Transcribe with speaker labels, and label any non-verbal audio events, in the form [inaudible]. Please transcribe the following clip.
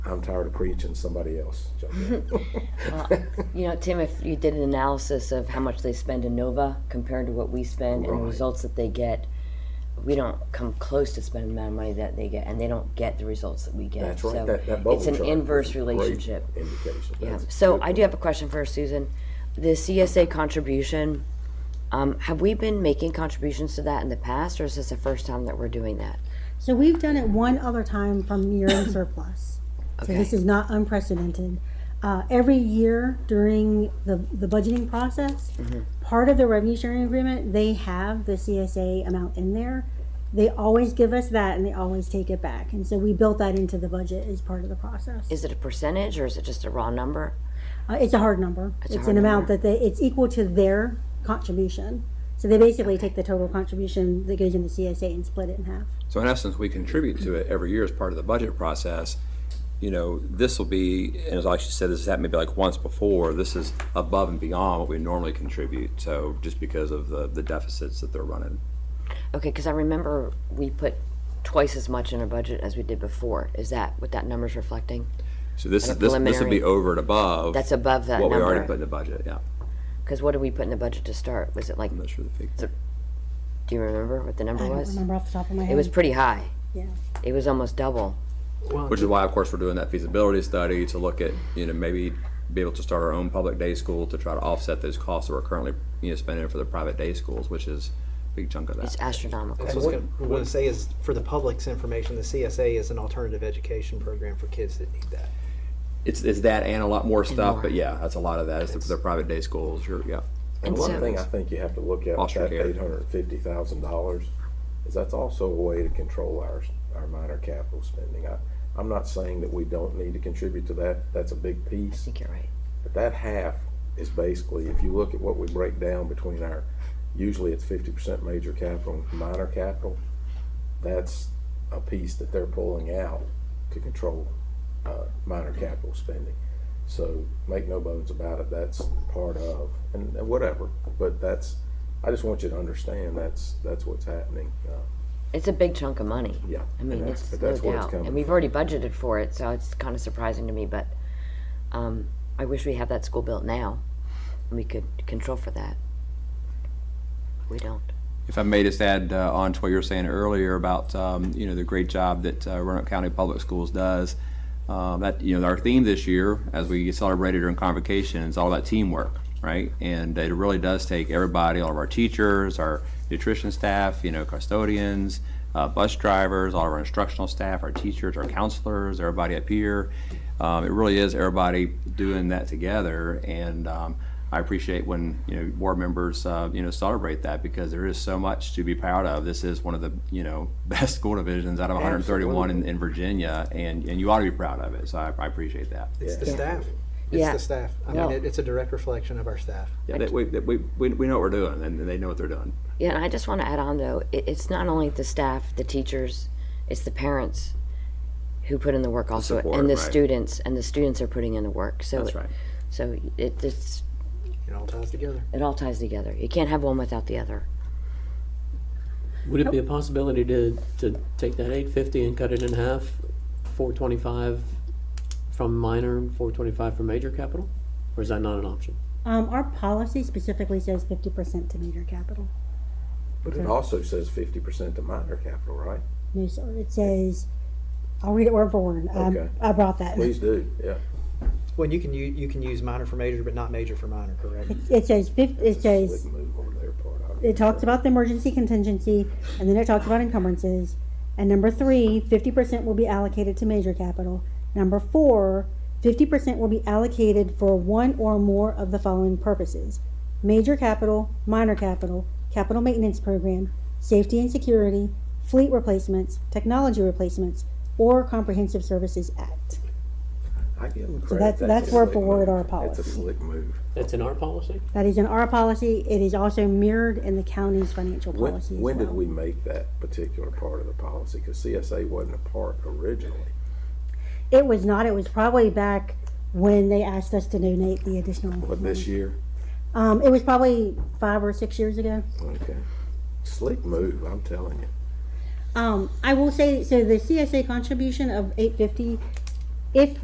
Speaker 1: I'm tired of preaching, somebody
Speaker 2: [laughs]
Speaker 1: else. jump in.
Speaker 2: You know, Tim, if you did an analysis of how much they spend in Nova compared to what we spend and the
Speaker 1: Right.
Speaker 2: results that they get, we don't come close to spending the amount of money that they get, and they don't get the results that we get.
Speaker 1: That's right,
Speaker 2: So
Speaker 1: that, that bubble
Speaker 2: it's an
Speaker 1: chart is a
Speaker 2: inverse
Speaker 1: great
Speaker 2: relationship.
Speaker 1: Indication.
Speaker 2: Yeah.
Speaker 1: That's a
Speaker 2: So
Speaker 1: good
Speaker 2: I do have a question for Susan. The CSA contribution, um, have we been making contributions to that in the past, or is this the first time that we're doing that?
Speaker 3: So we've done it one other time from
Speaker 2: [coughs]
Speaker 3: year-end surplus. So this
Speaker 2: Okay.
Speaker 3: is not unprecedented. Uh, every year during the, the budgeting process,
Speaker 2: Mm-hmm.
Speaker 3: part of the revenue sharing agreement, they have the CSA amount in there. They always give us that and they always take it back. And so we built that into the budget as part of the process.
Speaker 2: Is it a percentage, or is it just a raw number?
Speaker 3: Uh, it's a hard number.
Speaker 2: a
Speaker 3: It's
Speaker 2: hard
Speaker 3: an amount
Speaker 2: number.
Speaker 3: that they, it's equal to their contribution. So they basically take the total contribution that goes in the CSA and split it in half.
Speaker 4: So in essence, we contribute to it every year as part of the budget process. You know, this will be, and as I actually said, this has happened maybe like once before, this is above and beyond what we normally contribute, so just because of the, the deficits that they're running.
Speaker 2: Okay, because I remember we put twice as much in our budget as we did before. Is that what that number's reflecting?
Speaker 4: So this,
Speaker 2: And a
Speaker 4: this, this will
Speaker 2: preliminary-
Speaker 4: be over and above.
Speaker 2: That's above that
Speaker 4: What we already
Speaker 2: number.
Speaker 4: put in the budget, yeah.
Speaker 2: Because what did we put in the budget to start? Was it like,
Speaker 4: I'm not
Speaker 2: do
Speaker 4: sure the figure.
Speaker 2: you remember what the number
Speaker 3: I don't
Speaker 2: was?
Speaker 3: remember off the top of my head.
Speaker 2: Oh, It was pretty high.
Speaker 3: Yeah.
Speaker 2: It was almost double.
Speaker 4: Which is why, of course, we're doing that feasibility study to look at, you know, maybe be able to start our own public day school to try to offset those costs that we're currently, you know, spending for the private day schools, which is a big chunk of that.
Speaker 2: It's astronomical.
Speaker 5: That's what I was going to say is, for the public's information, the CSA is an alternative education program for kids that need that.
Speaker 4: It's, it's that and a lot more stuff,
Speaker 2: more.
Speaker 4: but yeah, that's a lot of that is the, the private day schools. You're, yeah.
Speaker 1: And
Speaker 2: And
Speaker 1: one
Speaker 2: so-
Speaker 1: thing I think you have to look at with
Speaker 4: Foster
Speaker 1: that
Speaker 4: care.
Speaker 1: eight hundred and fifty thousand dollars is that's also a way to control our, our minor capital spending. I, I'm not saying that we don't need to contribute to that, that's a big
Speaker 2: I
Speaker 1: piece.
Speaker 2: think you're right.
Speaker 1: But that half is basically, if you look at what we break down between our, usually it's fifty percent major capital and minor capital, that's a piece that they're pulling out to control, uh, minor capital spending. So make no bones about it, that's part of, and and whatever, but that's, I just want you to understand that's, that's what's happening. uh,
Speaker 2: It's a big chunk of money.
Speaker 1: Yeah.
Speaker 2: I mean,
Speaker 1: and that's-
Speaker 2: it's
Speaker 1: but
Speaker 2: no
Speaker 1: that's where it's
Speaker 2: doubt. And
Speaker 1: coming
Speaker 2: we've
Speaker 1: from.
Speaker 2: already budgeted for it, so it's kind of surprising to me, but um, I wish we had that school built now. And we could control for that. We don't.
Speaker 4: If I may just add uh, on to what you were saying earlier about um, you know the great job that uh, Roanoke County Public Schools does, um, that you know our theme this year as we celebrated during convocation is all about teamwork, right? And it really does take everybody, all of our teachers, our nutrition staff, you know custodians, uh, bus drivers, all of our instructional staff, our teachers, our counselors, everybody up here. Um, it really is everybody doing that together and. Um, I appreciate when, you know, board members, uh, you know, celebrate that because there is so much to be proud of. This is one of the, you know, [laughs] best school divisions out of 131 in, in Virginia, and, and you ought to be proud of it. So I, I appreciate that.
Speaker 5: It's the
Speaker 2: Yeah.
Speaker 5: staff.
Speaker 2: Yeah.
Speaker 5: It's the staff. I
Speaker 2: No.
Speaker 5: mean, it- it's a direct reflection of our staff.
Speaker 4: Yeah, that we, that we, we we know what we're doing, and they know what they're doing.
Speaker 2: Yeah, and I just want to add on though, it, it's not only the staff, the teachers, it's the parents who put in the work also,
Speaker 4: support,
Speaker 2: and the
Speaker 4: right.
Speaker 2: students, and the students are putting in the work. So,
Speaker 4: That's
Speaker 2: it-
Speaker 4: right.
Speaker 2: So it it's,
Speaker 5: It all ties together.
Speaker 2: it all ties together. You can't have one without the other.
Speaker 6: Would it be a possibility to, to take that eight fifty and cut it in half, four twenty-five from minor, four twenty-five from major capital? Or is that not an option?
Speaker 3: Um, our policy specifically says fifty percent to major capital.
Speaker 1: But it also says fifty percent to minor capital, right?
Speaker 3: No, sir, it says, I'll read it word for word. Um,
Speaker 1: Okay.
Speaker 3: I brought that.
Speaker 1: Please do, yeah.
Speaker 5: Well, you can, u- you can use minor for major, but not major for minor, correct?
Speaker 3: It says fif, it
Speaker 1: We
Speaker 3: says,
Speaker 1: can move on to their part. I-
Speaker 3: it talks about the emergency contingency, and then it talks about encumbrances. And number three, fifty percent will be allocated to major capital. Number four, fifty percent will be allocated for one or more of the following purposes. Major capital, minor capital, capital maintenance program, safety and security, fleet replacements, technology replacements, or comprehensive services act.
Speaker 1: I give them credit.
Speaker 3: that's-
Speaker 1: a
Speaker 3: that's word
Speaker 1: slick
Speaker 3: for word
Speaker 1: move.
Speaker 3: our
Speaker 1: That's
Speaker 3: policy.
Speaker 1: a slick move.
Speaker 6: That's in our policy?
Speaker 3: That is in our policy. It is also mirrored in the county's financial
Speaker 1: When,
Speaker 3: policy as
Speaker 1: when did we
Speaker 3: well.
Speaker 1: make that particular part of the policy? Because CSA wasn't a part originally.
Speaker 3: It was not, it was probably back when they asked us to donate the additional.
Speaker 1: What, this year?
Speaker 3: Um, it was probably five or six years ago.
Speaker 1: Okay. Slick move, I'm telling you.
Speaker 3: Um, I will say, so the CSA contribution of eight fifty, if